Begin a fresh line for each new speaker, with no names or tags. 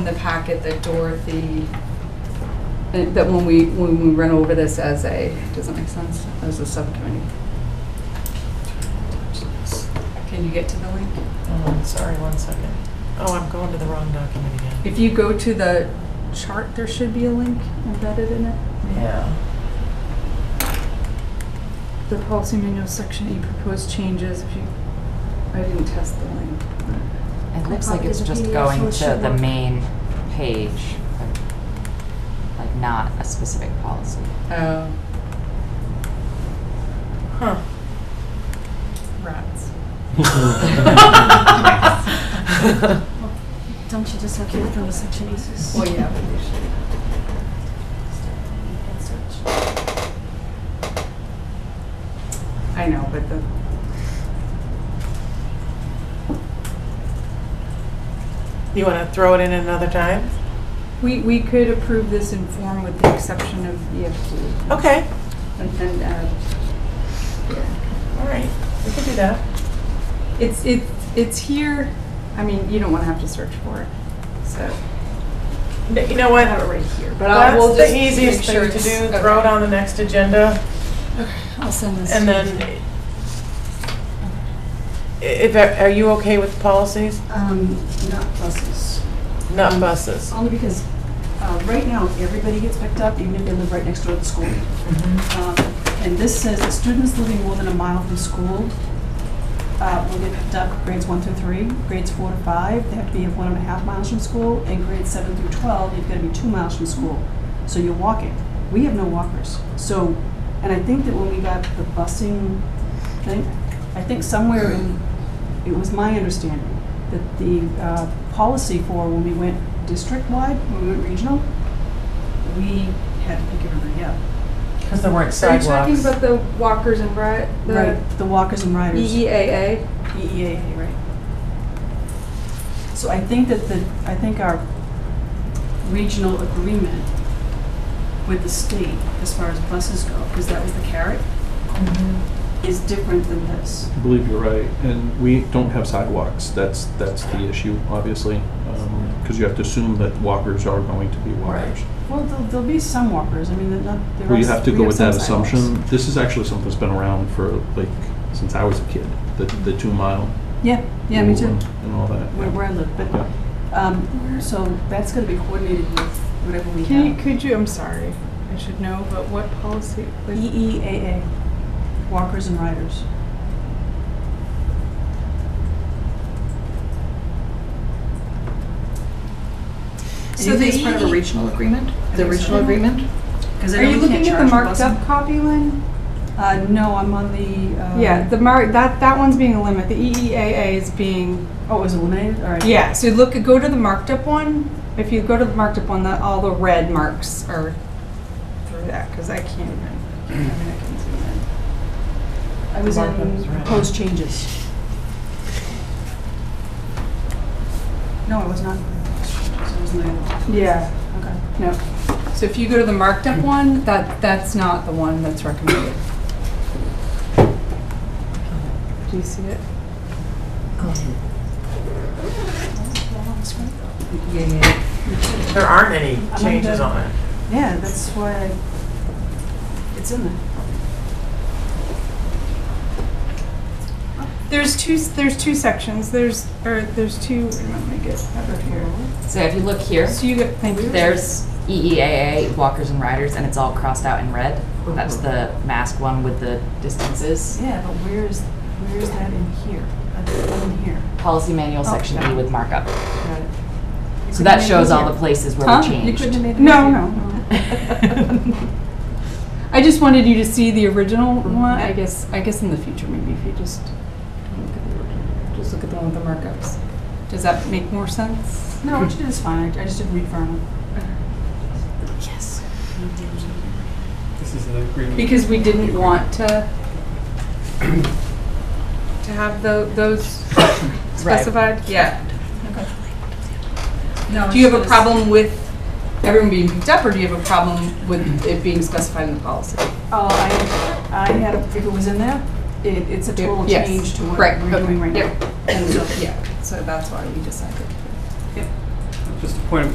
in the packet that Dorothy, that when we, when we run over this as a, does that make sense, as a subcommittee? Can you get to the link?
Oh, sorry, one second. Oh, I'm going to the wrong document again.
If you go to the chart, there should be a link embedded in it.
Yeah.
The policy manual section, you proposed changes, if you, I didn't test the link.
It looks like it's
Copies of
just
PDF, so
going
it
to
should
the
work.
main page, but, like not a specific policy.
Oh,
Huh.
rats.
Don't you just have to look on the section aces?
Well, yeah, but they should. I know, but the.
You want to throw it in another time?
We, we could approve this in form with the exception of EFT.
Okay,
And, and, uh,
all right, we can do that.
it's, it's, it's here, I mean, you don't wanna have to search for it, so.
But You know what?
I have it right here, but I will
That's
just.
the easiest
make sure
thing to
it's-
do, throw it
okay.
on the next agenda,
I'll send this.
and
to
then,
you.
i- if, are you okay with policies?
Um, not buses,
Not buses.
only because, uh, right now, everybody gets picked up, even if they live right next door to the school. Um, And this says that students living more than a mile from school, uh, will get picked up grades one through three, grades four to five, they have to be one and a half miles from school, and grades seven through twelve, you've gotta be two miles from school. So you're walking. We have no walkers. So, and I think that when we got the busing thing, I think somewhere in, it was my understanding that the uh, policy for when we went district-wide, when we went regional, we had to pick everybody up.
Because there weren't
Are you talking about the walkers and ri, the
Right, the walkers and riders.
E EEAA?
EEAA, right. So I think that the, I think our regional agreement with the state, as far as buses go, because that was the carrot, is different than this.
I believe you're right, and we don't have sidewalks, that's, that's the issue, obviously, because you have to assume that walkers are going to be walkers.
Well, there'll, there'll be some walkers, I mean, they're not, there are.
Well, you have to
we
go with
some
that
sidewalks.
assumption, this is actually something that's been around for, like, since I was a kid, the, the two mile.
Yeah, yeah, me
rule
too,
and- And all that.
where, where I live,
Yeah.
but, um, so that's gonna be coordinated with whatever we
Can you,
have.
could you, I'm sorry, I should know, but what policy? like-
E
E EEAA, walkers and riders.
So the is part of a
E
regional agreement? The regional agreement?
Because
Are you looking at the marked up copy, Lynn?
Uh, no, I'm on the, uh.
Yeah, the mark, that, that one's being a limit. The EEAA is being,
Oh, it was eliminated, all right.
yeah, so look, go to the marked up one. If you go to the marked up one, that, all the red marks are through that, because I can't even, I mean, I can zoom in.
I was
Markup
in
is right.
proposed changes. No, I was not. So it was not.
Yeah.
Okay.
No. So if you go to the marked up one, that, that's not the one that's recommended. Do you see it? Yeah, yeah.
There aren't any changes on it.
Yeah, that's why I, it's in there.
There's two, there's two sections. There's, or there's two, wait a minute, let me get over here.
So if you look here,
So you get, thank you.
there's E EEAA, walkers and riders, and it's all crossed out in red. That's the mask one with the distances.
Yeah, but where is, where is that in here? That's in here.
Policy manual, section
Okay.
E with markup.
Got it. You
So
couldn't
that
make
shows
it
all the
easier.
places where
Huh?
we
You
You
changed.
couldn't have made it.
No,
easier.
no, no. I just wanted you to see the original one. I guess, I guess in the future, maybe if you just don't look at the original, just look at the one with the markups. Does that make more sense?
No, what you did is fine, I I just didn't read far enough.
Yes.
This is an agreement.
Because we didn't want to to have tho- those specified? Yeah. Do you have a problem with everyone being picked up, or do you have a problem with it being specified in the policy?
Oh, I, I had, a- if it was in there, it, it's a total
Yes.
change to what
Right,
we're
okay,
doing right now.
yep.
And so,
Yeah, so that's why we decided.
Just a point of